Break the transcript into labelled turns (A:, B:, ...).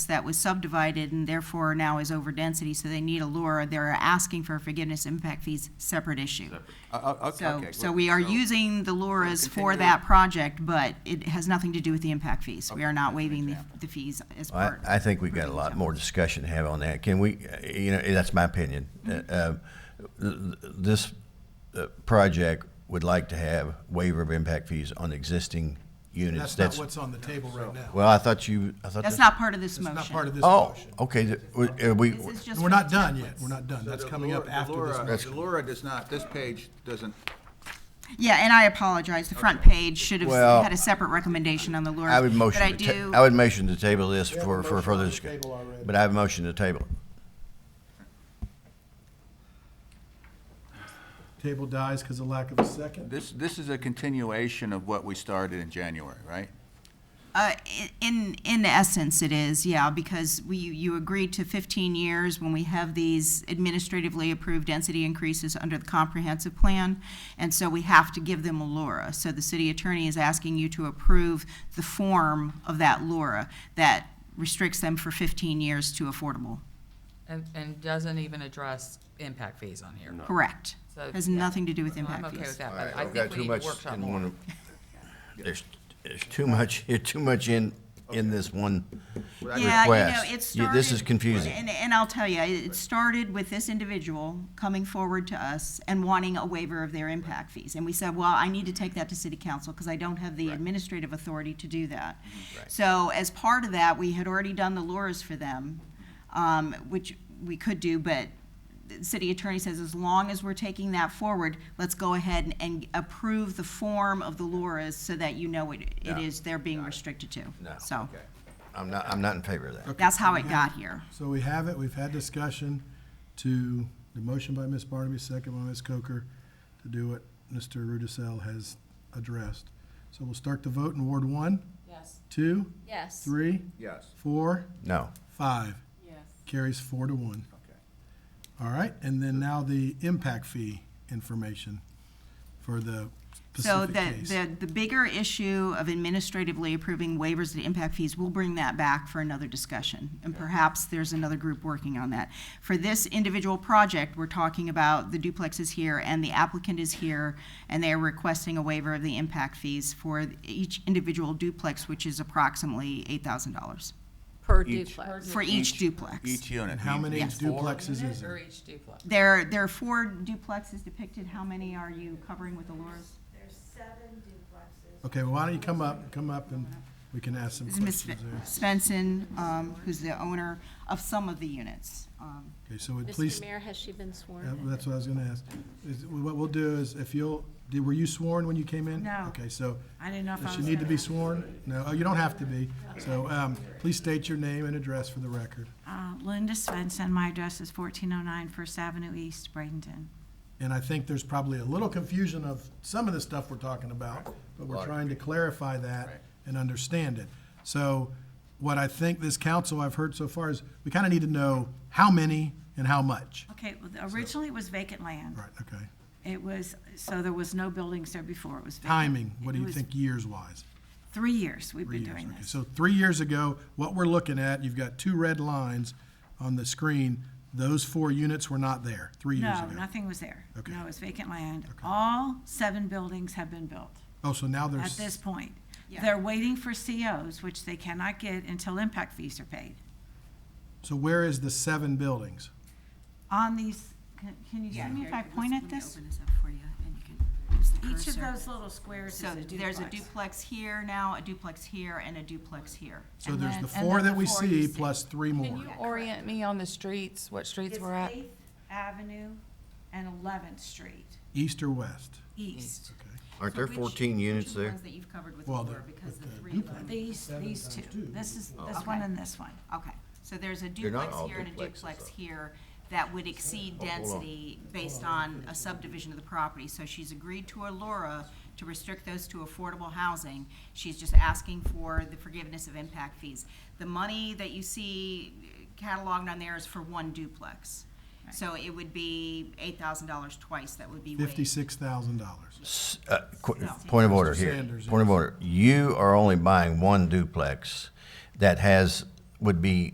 A: that was subdivided and therefore now is over density, so they need a LURA. They're asking for forgiveness impact fees, separate issue.
B: Uh, uh, okay,
A: So,
B: okay,
A: so
B: good.
A: we are
B: So-
A: using the LURAs for
B: continue.
A: that project, but it has nothing to do with the impact fees. We
B: Okay,
A: are not
B: as an
A: waiving the,
B: example.
A: the fees as
C: I,
A: part.
C: I think we've got a lot more discussion to have on that. Can we, uh, you know, that's my opinion.
A: Mm-hmm.
C: Uh, uh, th- th- This uh, project would like to have waiver of impact fees on existing units.
D: That's not what's on the table right now.
C: Well, I thought you, I thought.
A: That's
C: that-
A: not part of this
D: It's
A: motion.
D: not part of this
C: Oh,
D: motion.
C: okay, th- we- uh, we,
A: This is just
D: And We're
A: for
D: not
A: the
D: done
A: templates.
D: yet. We're not done.
B: So
D: That's
B: the
D: coming up
B: Laura- the
D: after this.
B: Laura-
D: motion.
B: The Laura does not, this page doesn't,
A: Yeah, and I apologize. The front page should have
C: Well,
A: had a separate recommendation on the LURA.
C: I would
A: But I
C: motion, to ta-
A: do,
C: I would motion to table this
D: have a
C: for, for
D: motion on
C: further
D: the
C: discussion.
D: table already.
C: But I have a motion to table.
D: Table dies because of lack of a second.
B: this, this is a continuation of what we started in January, right?
A: uh, i- in, in essence, it is, yeah, because we, you agreed to fifteen years when we have these administratively approved density increases under the comprehensive plan. And so we have to give them a LURA. So the city attorney is asking you to approve the form of that LURA that restricts them for fifteen years to affordable.
E: And, and doesn't even address impact fees on here.
A: Correct.
E: So,
A: Has
E: yeah.
A: nothing to do with
E: So
A: impact
E: I'm okay
A: fees.
E: with that, but I think we need to workshop more.
C: There's, there's too much, there's too much in, in this one.
A: Yeah,
C: request.
A: you know, it
C: You-
A: started.
C: this is confusing.
A: And, and I'll tell you, it started with this individual coming forward to us and wanting a waiver of their impact fees. And we said, well, I need to take that to city council because I don't have the administrative authority to do that. So as part of that, we had already done the lures for them, um, which we could do, but the city attorney says, as long as we're taking that forward, let's go ahead and, and approve the form of the lures so that you know it, it is they're being restricted to.
C: No.
A: So
C: I'm not, I'm not in favor of that.
A: that's how it got here.
D: So we have it, we've had discussion to, the motion by Ms. Barnaby, second by Ms. Coker, to do what Mr. Rudisell has addressed. So we'll start the vote in Ward one,
F: Yes.
D: two,
F: Yes.
D: three,
B: Yes.
D: four,
C: No.
D: five.
F: Yes.
D: Carries four to one.
B: Okay.
D: All right, and then now the impact fee information for the
A: So
D: specific
A: the,
D: case.
A: the, the bigger issue of administratively approving waivers of impact fees, we'll bring that back for another discussion. And perhaps there's another group working on that. For this individual project, we're talking about the duplex is here and the applicant is here, and they're requesting a waiver of the impact fees for each individual duplex, which is approximately eight thousand dollars
F: Per
B: Each.
F: duplex.
A: for each duplex.
B: Each unit.
D: And how many
B: Each four?
D: duplexes is
E: Or
D: it?
E: each duplex.
A: There, there are four duplexes depicted. How many are you covering with the Laura's?
D: Okay, well, why don't you come up, come up and we can ask some
A: This is Ms.
D: questions there.
A: Svensson, um, who's the owner of some of the units. Um,
D: Okay, so would
F: Mr.
D: please,
F: Mayor, has she been sworn?
D: yeah,
F: in?
D: that's what I was gonna ask. Is- What we'll do is if you'll, did, were you sworn when you came in?
A: No.
D: Okay, so,
A: I didn't know if
D: does
A: I
D: she
A: was.
D: need to be sworn? No, oh, you don't have to be. So, um, please state your name and address for the record.
G: Uh, Linda Svensson, my address is 1409 First Avenue East, Bradenton.
D: And I think there's probably a little confusion of some of the stuff we're talking about, but we're trying to clarify that and understand it. So what I think this council I've heard so far is, we kind of need to know how many and how much.
G: Okay, well, originally it was vacant land.
D: Right, okay.
G: It was, so there was no buildings there before, it was vacant.
D: Timing, what do
G: It
D: you
G: was
D: think years-wise?
G: Three years we've
D: Three
G: been
D: years,
G: doing
D: okay.
G: this.
D: So three years ago, what we're looking at, you've got two red lines on the screen. Those four units were not there three years
G: No,
D: ago.
G: nothing was there.
D: Okay.
G: No, it was vacant land. All seven buildings have been built
D: Oh, so now
G: at
D: there's,
G: this point.
A: Yeah.
G: They're waiting for COs, which they cannot get until impact fees are paid.
D: so where is the seven buildings?
G: On these, can- can you see me if I point at this? Each of those little squares is
A: So
G: a duplex.
A: there's a duplex here now, a duplex here, and a duplex here.
D: So
G: And
D: there's
G: then-
D: the
G: and
D: four
G: then
D: that
G: the
D: we
G: four you
D: see
G: see.
D: plus three
E: Can
D: more.
E: you orient me on the streets, what streets we're at?
G: Eighth Avenue and Eleventh Street
D: East or west?
G: East.
D: Okay.
C: Aren't there
A: So which-
C: fourteen
A: which are
C: units
A: the
C: there?
A: ones that you've covered with
D: Well,
A: Laura,
D: the-
A: because
D: but
A: the
D: the
A: three of them-
G: These, these two, this is, this one
A: Okay.
G: and this one.
A: Okay, so there's a
C: They're not
A: duplex
C: all
A: here and a
C: duplexes,
A: duplex
C: though. Oh,
A: here that would exceed density based on a subdivision of the property. So she's agreed to a LURA to restrict those to affordable housing. She's just asking for the forgiveness of impact fees. The money that you see cataloged on there is for one duplex. So it would be eight thousand dollars twice, that would be waived.
D: Fifty-six thousand dollars.
C: Uh, qu- Point of order here.
D: Sanders,
C: Point of order. You are only buying one duplex that has, would be